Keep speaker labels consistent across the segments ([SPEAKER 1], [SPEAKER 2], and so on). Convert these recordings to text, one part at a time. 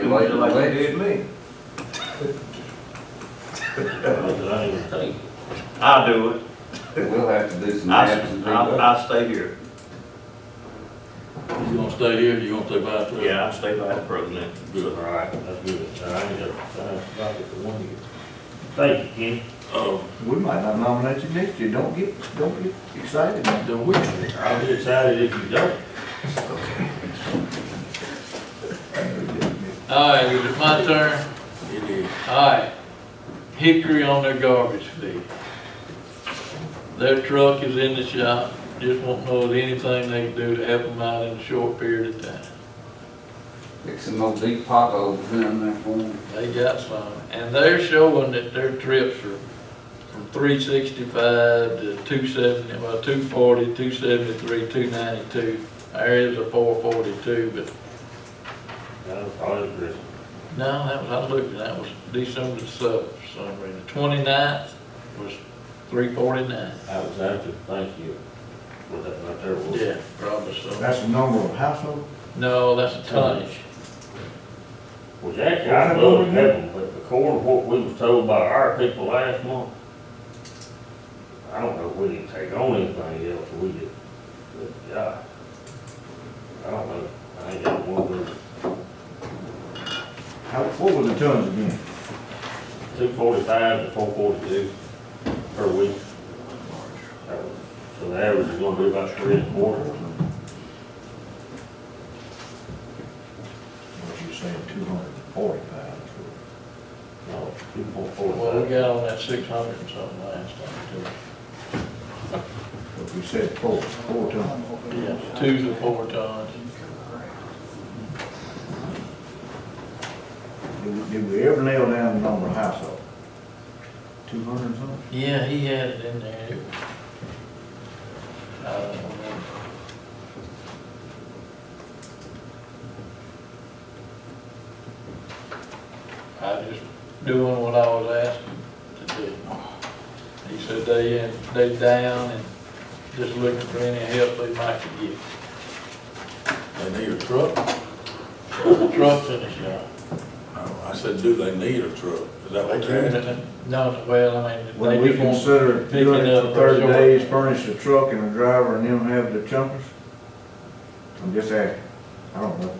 [SPEAKER 1] do it like you did me.
[SPEAKER 2] I ain't gonna take it. I'll do it.
[SPEAKER 1] We'll have to do some
[SPEAKER 2] I,
[SPEAKER 1] maps and
[SPEAKER 2] s-
[SPEAKER 1] do that.
[SPEAKER 2] I'll, I'll stay here.
[SPEAKER 3] You gonna stay here, you gonna stay by the?
[SPEAKER 2] Yeah, I'll stay by the president.
[SPEAKER 3] Good.
[SPEAKER 2] All right.
[SPEAKER 3] That's good. I ain't got, I ain't got the one here.
[SPEAKER 2] Thank you, Kenny.
[SPEAKER 3] Um,
[SPEAKER 4] We might not nominate you next year, don't get, don't get excited.
[SPEAKER 3] then we, I'll be excited if you don't. All right, is it my turn? It is. All right. Hickory on their garbage fee. Their truck is in the shop, just won't know of anything they can do to help them out in a short period of time.
[SPEAKER 1] Fix some old deep potholes down there for them.
[SPEAKER 3] They got some, and they're showing that their trips are from three sixty-five to two seventy, well, two forty, two seventy-three, two ninety-two. There is a four forty-two, but
[SPEAKER 2] That was probably Chris.
[SPEAKER 3] no, that was, I looked, and that was December the seventh, for some reason. The 29th was three forty-nine.
[SPEAKER 2] That was after Thanksgiving. Was that right there? wasn't it?
[SPEAKER 3] Yeah, probably so.
[SPEAKER 4] That's the number of household,
[SPEAKER 3] No, that's a tonnage.
[SPEAKER 2] Which actually, I love them, but according to what we was told by our people last month, I don't know if we didn't take on anything else, we did, but, God, I don't know, I ain't got one of them,
[SPEAKER 4] how, what were the tons again?
[SPEAKER 2] two forty-five to four forty-two per week. So- So the average is gonna be about three and a quarter,
[SPEAKER 4] What you saying, two hundred and forty pounds?
[SPEAKER 2] no, two point
[SPEAKER 3] Well, we
[SPEAKER 2] four.
[SPEAKER 3] got on that six hundred and something last time,
[SPEAKER 4] But we said four, four tons.
[SPEAKER 3] too. Yeah, two to four tons.
[SPEAKER 4] Did we, did we ever nail down the number of household? Two hundred and something?
[SPEAKER 3] Yeah, he had it in there. It was- I don't remember. I just doing what I was asked to do. He said they, in- they down and just looking for any help they might could get.
[SPEAKER 5] They need a truck?
[SPEAKER 3] The trucks in the shop.
[SPEAKER 5] No, I said, do they need a truck? Is that what you're asking?
[SPEAKER 3] No, well, I mean,
[SPEAKER 4] Would
[SPEAKER 3] they
[SPEAKER 4] we
[SPEAKER 3] just want.
[SPEAKER 4] consider
[SPEAKER 3] pick it
[SPEAKER 4] doing it
[SPEAKER 3] up
[SPEAKER 4] for
[SPEAKER 3] for
[SPEAKER 4] thirty
[SPEAKER 3] sure.
[SPEAKER 4] days, furnish a truck and a driver, and them have the jumpers? I'm just asking, I don't know.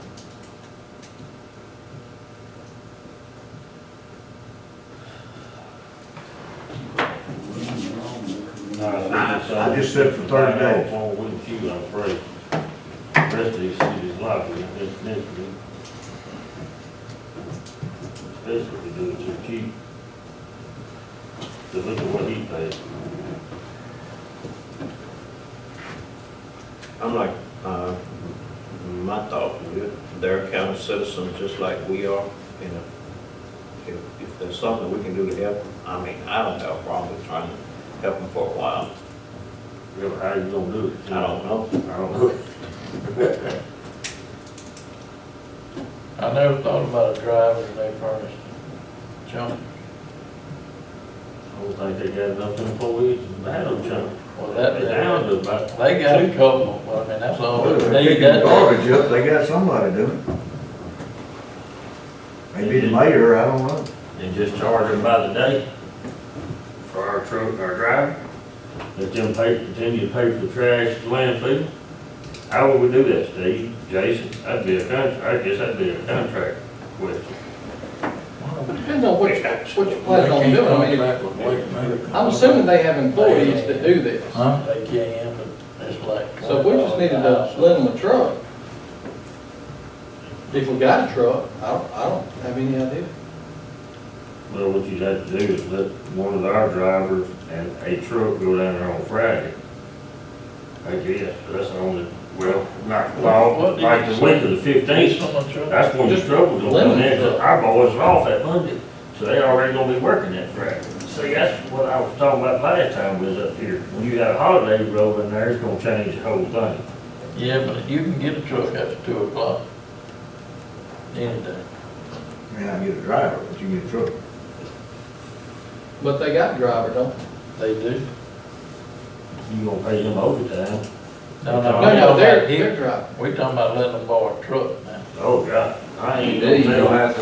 [SPEAKER 4] I just said for 30 days.
[SPEAKER 2] One week, Uh, two, I'm afraid. The Rest of these cities like it, it's different. Especially if you do it too cheap. Cause look at what he paid. I'm like, uh, my thought, is that they're county citizens just like we are, and if- if, if there's something we can do to help, them, I mean, I don't have a problem with trying to help them for a while. Really, how you gonna do it? I don't know. I don't know.
[SPEAKER 3] I never thought about a driver and they furnished junk.
[SPEAKER 2] I don't think they got enough employees in Battle Channel.
[SPEAKER 3] Well, that,
[SPEAKER 2] They down to about,
[SPEAKER 3] they got a couple, but I mean, that's all
[SPEAKER 4] Well, if
[SPEAKER 3] they
[SPEAKER 4] They're
[SPEAKER 3] need.
[SPEAKER 4] picking the
[SPEAKER 3] That-
[SPEAKER 4] garbage up, they got somebody doing it. Maybe the mayor, I don't know.
[SPEAKER 2] and just charge them by the day. For our truck, our driver. Let them pay, continue to pay for the trash, landfill. How would we do that, Steve, Jason? That'd be a contract, I guess that'd be a contract question.
[SPEAKER 6] Depends on what you, what you plan on
[SPEAKER 5] They
[SPEAKER 6] doing.
[SPEAKER 5] can't
[SPEAKER 6] I mean,
[SPEAKER 5] contract with Wake Mayor.
[SPEAKER 6] I'm assuming they have employees that do this.
[SPEAKER 3] Huh? They can, but it's like.
[SPEAKER 6] So we just needed to let them a truck. If we got a truck, I don't, I don't have any idea.
[SPEAKER 2] Well, what you'd have to do is let one of our drivers and a truck go down there on Friday. I guess, that's the only, well, not, well, like the week of the
[SPEAKER 3] Need
[SPEAKER 2] fifteenth,
[SPEAKER 3] someone truck.
[SPEAKER 2] that's when the trouble's gonna come in, 'cause our boys are off that Monday, so they already gonna be working that Friday. See, that's what I was talking about last time we was up here, when you got a holiday roll in there, it's gonna change the whole thing.
[SPEAKER 3] Yeah, but you can get a truck after two o'clock. Any day.
[SPEAKER 4] May not get a driver, but you get a truck.
[SPEAKER 6] But they got driver, don't they?
[SPEAKER 3] They do.
[SPEAKER 2] You gonna pay them overtime, Oh,
[SPEAKER 3] No, no.
[SPEAKER 6] No,
[SPEAKER 3] we
[SPEAKER 6] no,
[SPEAKER 3] talking
[SPEAKER 6] they're,
[SPEAKER 3] about here.
[SPEAKER 6] they're driving.
[SPEAKER 3] We talking about letting them borrow a truck now.
[SPEAKER 2] oh God, I ain't
[SPEAKER 1] Indeed,
[SPEAKER 2] gonna
[SPEAKER 1] you'll
[SPEAKER 2] tell.
[SPEAKER 1] have to